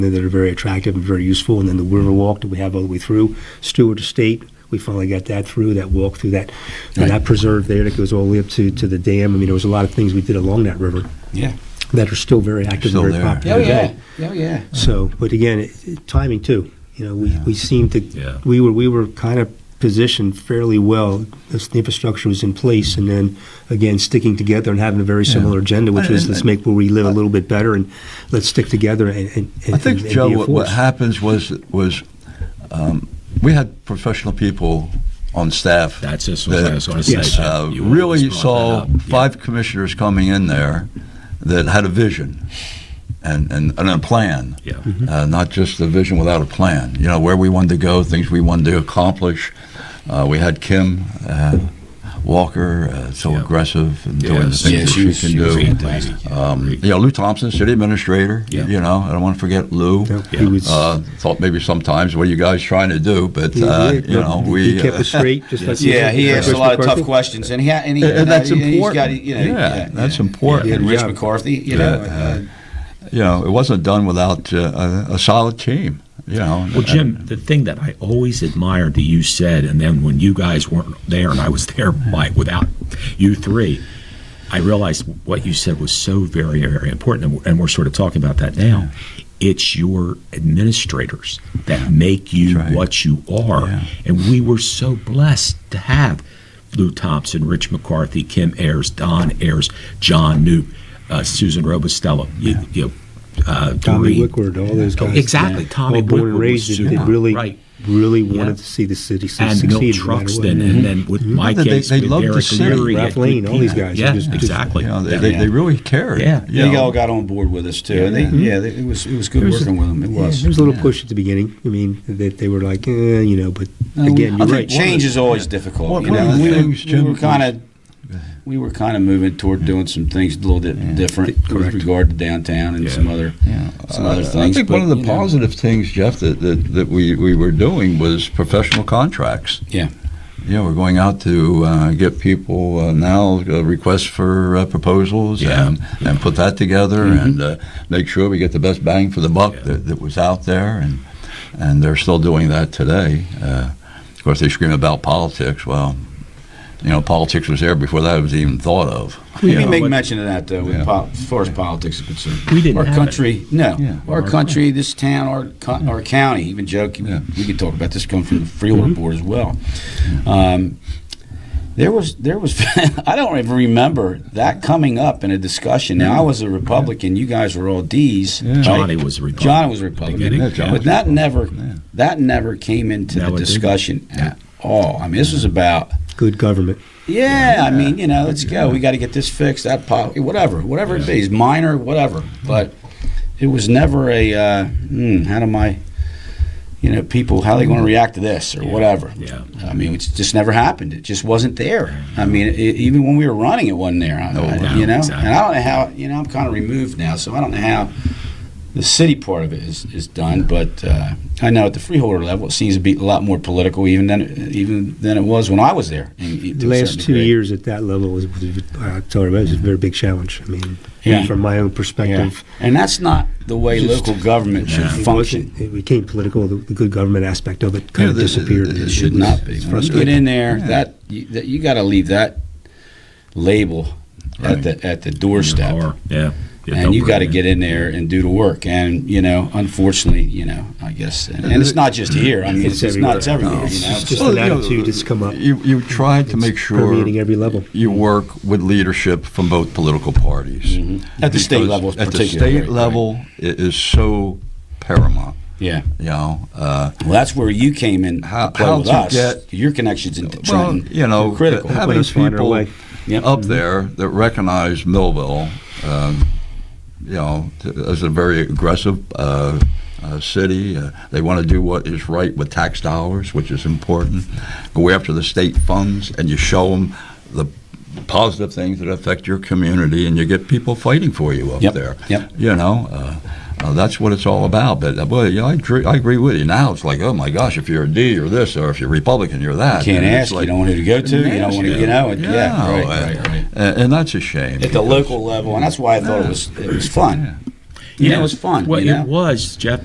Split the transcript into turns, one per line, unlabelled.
that are very attractive and very useful. And then the Riverwalk that we have all the way through Stewart Estate, we finally got that through, that walk through that, and that
Right.
preserve there that goes all the way up to, to the dam. I mean, there was a lot of things we did along that river
Yeah.
that are still very active
Still
and very
there.
popular
Oh,
today.
Oh, yeah.
So, but again, it- it- timing too. You know, we,
Yeah.
we seemed to,
Yeah.
we were, we were kind of positioned fairly well. as The infrastructure was in place and then, again, sticking together and having a very
Yeah.
similar agenda, which
And-
was
and-
let's make where we live a little bit better and let's stick together and, and, and
I think,
and
Joe,
be a
what, what
force.
happens was, was um, we had professional people on staff.
That's just what I was going to say.
Yes.
Jeff.
uh,
You
really
always
you
brought
saw
that up. Yeah.
five commissioners coming in there that had a vision and, and, and a plan.
Yeah.
Uh, not just a vision without a plan. You know, where we wanted to go, things we wanted to accomplish. Uh, we had Kim uh, Walker, uh, so
Yeah.
aggressive and doing the
Yes.
things
Yeah,
that
she
she,
was-
can
she was
do.
fantastic.
Um,
Great.
you know, Lou Thompson, city administrator.
Yeah.
You know, I don't want to forget Lou.
Yeah, He was,
Uh, thought maybe sometimes what are you guys trying to do, but
he-
uh,
he-
you know
he
we
kept
uh,
us straight, just like.
Yeah, he
said,
asks a
Chris
lot of tough
McCarthy.
questions, and he ha- and he
And- and that's
and he- He's got,
important.
you know,
Yeah, that's important.
And
Yeah.
Rich
Yeah.
McCarthy, you
Yeah.
know, uh,
you know, it wasn't done without uh, a, a solid team. You know.
Well, Jim, the thing that I always admired that you said, and then when you guys weren't there and I was there by, without you three, I realized what you said was so very, very important, and- and we're sort of talking about that now. It's your administrators that make you
That's right.
what you are.
Yeah.
And we were so blessed to have Lou Thompson, Rich McCarthy, Kim Ayers, Don Ayers, John Newt, uh, Susan Robustello, you, you know, uh,
Tommy
Doreen.
Wickward, all those guys.
Exactly, Tommy
All born and
Wickward was
raised, that they
super,
really,
right.
really wanted
Yeah.
to see the city su-
and
succeed. no
Milt
matter what.
Truxton, and then with my
They-
case,
they
with
loved the
Derek
city.
Leary,
Ralph
yeah,
Lane, all these
people.
guys,
Yeah,
just- just-
exactly.
You know, they,
Yeah.
they, they really cared.
Yeah.
you
they
know. Mm-hmm.
all got on board with us too, and they, yeah, they, it was it was good
There was a-
working with them. It
Yeah,
was.
there was a little push at the beginning. I mean, that they were like, eh, you know, but
Oh,
again, you're
I think
right.
Change is always difficult.
Well,
you
one of
know,
the
we, were-
things,
we
Jim,
were kind of we were kind of moving toward doing some things a little bit different
Correct.
with regard to downtown and
Yeah.
some other
Yeah.
some other
Uh,
things.
I think
but,
one of the
you know,
positive things, Jeff, that, that, that we, we were doing was professional contracts.
Yeah.
You know, we're going out to uh, get people uh, now uh, requests for uh, proposals
Yeah.
and, and put that together
Mm-hmm.
and uh, make sure we get the best bang for the buck
Yeah.
that, that was out there. And, and they're still doing that today. Uh, of course, they scream about politics. Well, you know, politics was there before that was even thought of.
We
you
didn't
know.
make mention of that though, with
Yeah.
pol- as far as politics is concerned.
We didn't
Our
have
country, no,
Yeah.
our country, this town, our co- our county, even Joe, can-
Yeah.
we could talk about this coming from the Freeland
Mm-hmm.
Board as well. Um, there was there was I don't even remember that coming up in a discussion. Now I was a Republican, you guys were all D's.
Yeah.
Johnny was a Republican.
John was a Republican,
Beginning,
Yeah, John
but
was
that never
Yeah.
that never came into
No,
the
it didn't.
discussion at all. I mean, this was about
Good government.
yeah, I mean, you know, let's go. We got to get this fixed, that pop, whatever, whatever it is, minor, whatever. But it was never a uh, hmm, how do I, you know, people how they going to react to this or whatever.
Yeah.
I mean, it's just never happened. It just wasn't there. I mean, it, even when we were running, it wasn't there. I,
No,
I-
no,
you know,
exactly.
and I don't know how. You know, I'm kind of removed now, so I don't know how the city part of it is, is done. But uh, I know at the freeholder level, it seems to be a lot more political even than even than it was when I was there. in- to
The
a
last
certain
two
degree.
years at that level was, was I tell you, it was a very big challenge. I mean,
Yeah.
from my own perspective,
And that's not the way
Just-
local government should
it
function.
wasn't- It became political. The, the good government aspect of it kind
Yeah,
of
the-
disappeared.
the- the-
It
was-
should
was
not be. When you
frustrating.
get in there,
Yeah.
that you, that you got to leave that label
Right.
at the at the
Yeah.
doorstep,
Or- Yeah. Yeah,
and
don't
you got to
bring it.
get in there and do the work. And you know, unfortunately, you know, I guess, and, and it's not just here. I mean, it's,
It's
it's not it's
everywhere.
everywhere.
No,
you
it's
know?
just-
So-
an
you know,
attitude that's come up.
You, you tried to
It's
make sure
permeating every level.
you work with leadership from both political parties
Mm-hmm. At the state
Because
level
At the
particularly,
state
right.
level, it is so paramount.
yeah.
You know, uh,
Well, that's where you came in. to
How-
play
how
with
to
us.
get-
your connections into
well,
Trenton.
you know,
were critical.
having
Let us find our
people
way.
Yep.
up there that recognize Millville, um, you know, t- as a very aggressive uh, uh, city. Uh, they want to do what is right with tax dollars, which is important. Go after the state funds, and you show them the positive things that affect your community, and you get people fighting for you up
Yep,
there.
yep.
You know. Uh, uh, that's what it's all about. But uh, boy, you know, I, agree, I agree with you. Now it's like, oh my gosh, if you're a D, you're this, or if you're Republican, you're that.
Can't
And it's
ask.
like-
you don't want who to go to. You don't want to. You know.
yeah,
Yeah. yeah right,
uh,
right. Right.
And, and that's a shame.
at the local level, and that's why I thought it was it was fun.
Yeah.
You know, it was fun.
Well,
you know?
it was, Jeff.